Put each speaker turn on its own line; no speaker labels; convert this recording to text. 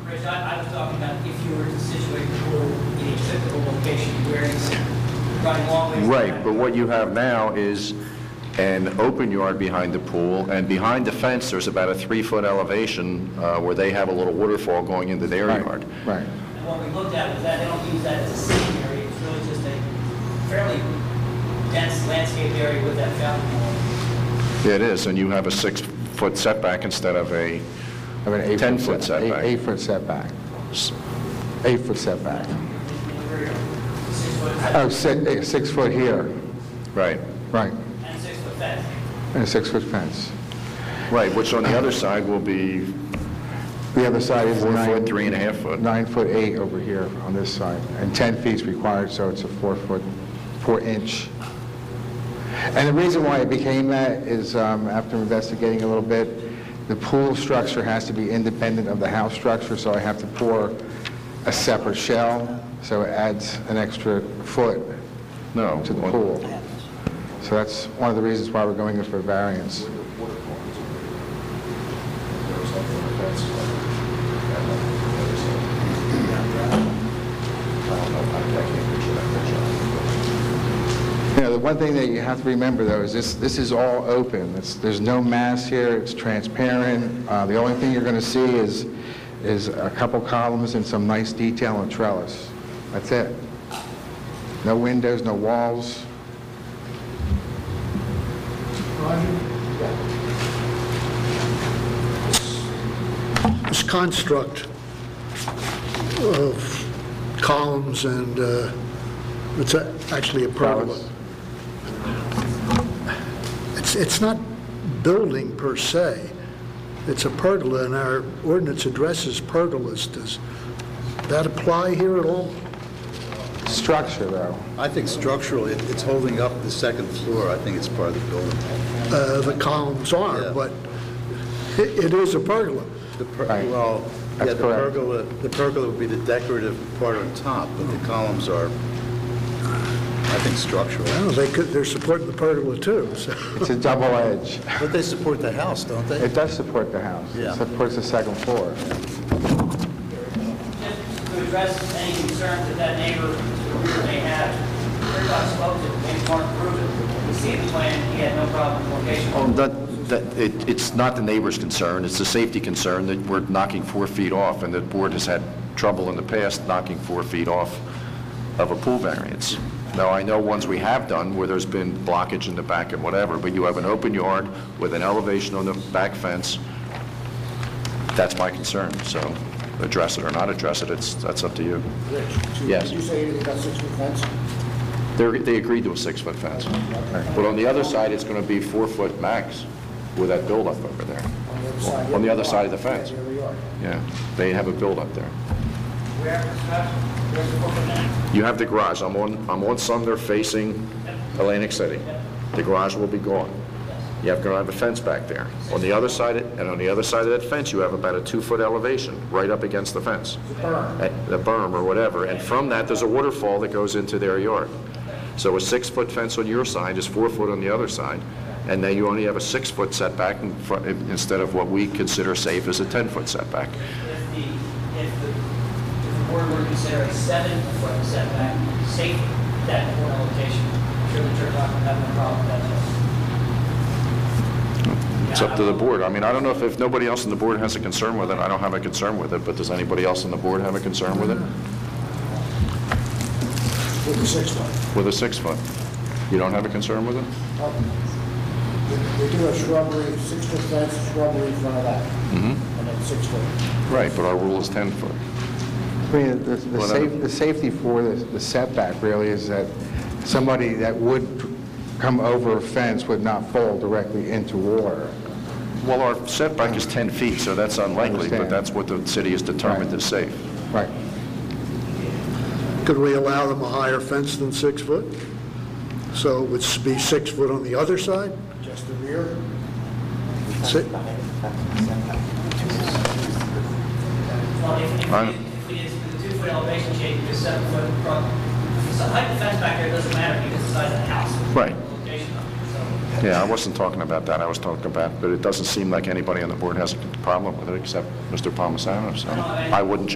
Rich, I, I was talking about if you were to situate the pool in a typical location where it's running long ways.
Right, but what you have now is an open yard behind the pool, and behind the fence, there's about a three-foot elevation uh, where they have a little waterfall going into their yard.
Right.
And what we looked at was that they don't use that as a sitting area, it's really just a fairly dense landscape area with that fountain. wall.
It is, and you have a six-foot setback instead of a,
I mean, eight foot
10-foot
set- eight-
setback.
Eight-foot setback. Eight-foot setback.
In the rear, Six foot,
Oh, si- eh, six foot here,
right,
right,
and six foot fence.
and a six-foot fence.
right, which on the other side will be
The other side is
four
nine...
foot, three and a half foot.
Nine foot eight over here on this side, and 10 feet's required, so it's a four foot, four inch. And the reason why it became that is, um, after investigating a little bit, the pool structure has to be independent of the house structure, so I have to pour a separate shell, so it adds an extra foot
No.
to the
on-
pool. So that's one of the reasons why we're going in for variance. You know, the one thing that you have to remember, though, is this, this is all open. It's, there's no mass here, it's transparent. Uh, the only thing you're going to see is, is a couple columns and some nice detail on trellis. That's it. No windows, no walls.
this construct of columns and, uh, it's a- actually a pergola. It's, it's not building per se, it's a pergola, and our ordinance addresses pergolas. Does that apply here at all?
Structure, though.
I think structurally, it- it's holding up the second floor. I think it's part of the building.
Uh, The columns
Yeah.
are, but it it is a pergola.
The per-
Right.
Well, yeah,
That's
the
correct.
pergola, the pergola would be the decorative part on top, but the columns are, I think, structural.
Well, They could, they're supporting the pergola too, so.
It's a double edge.
But they support the house, don't they?
It does support the house.
Yeah.
It supports the second floor.
Just to address any concerns that that neighbor to the rear may have, Rick, I spoke to Vince Mark Rubin, we see the plan, he had no problem with location.
Oh, that, that, it, it's not the neighbor's concern, it's a safety concern that we're knocking four feet off, and the board has had trouble in the past knocking four feet off of a pool variance. Now, I know ones we have done where there's been blockage in the back and whatever, but you have an open yard with an elevation on the back fence. That's my concern, so address it or not address it, it's, that's up to you. Yes.
You say you got six-foot fence?
They're, they agreed to a six-foot fence. But on the other side, it's going to be four-foot max with that buildup over there.
On the other side.
On the other side of the fence.
Here we are.
Yeah, they have a buildup there.
Where, where's the foot now?
You have the garage, I'm on, I'm on Sumner facing Atlantic City. The garage will be gone. You have, going to have a fence back there. On the other side, and on the other side of that fence, you have about a two-foot elevation, right up against the fence. The berm. The berm or whatever, and from that, there's a waterfall that goes into their yard. So a six-foot fence on your side is four foot on the other side, and then you only have a six-foot setback in front, instead of what we consider safe as a 10-foot setback.
If the, if the, if the board were to consider a seven-foot setback, safe, that one location, sure the church not gonna have no problem with that.
It's up to the board. I mean, I don't know if, if nobody else on the board has a concern with it, I don't have a concern with it, but does anybody else on the board have a concern with it?
With the six-foot.
With a six-foot? You don't have a concern with it?
They do a shrubbery, six-foot fence, shrubbery in front of that. Mm-hmm. And then six-foot.
Right, but our rule is 10-foot.
I mean, the- the
Well,
safe-
no.
the safety for the the setback really is that somebody that would come over a fence would not fall directly into water.
Well, our setback is 10 feet, so that's unlikely, but
Understand.
that's what the city has determined is safe.
Right.
Could we allow them a higher fence than six foot? So it would be six foot on the other side?
Just the rear.
Si-
Well, if, if
I'm-
we, if we did the two-foot elevation change, just seven-foot front, so height of the fence back there doesn't matter because it's the size of the house.
Right.
Location of it, so.
Yeah, I wasn't talking about that, I was talking about, but it doesn't seem like anybody on the board has a problem with it, except Mr. Palmisano, so I wouldn't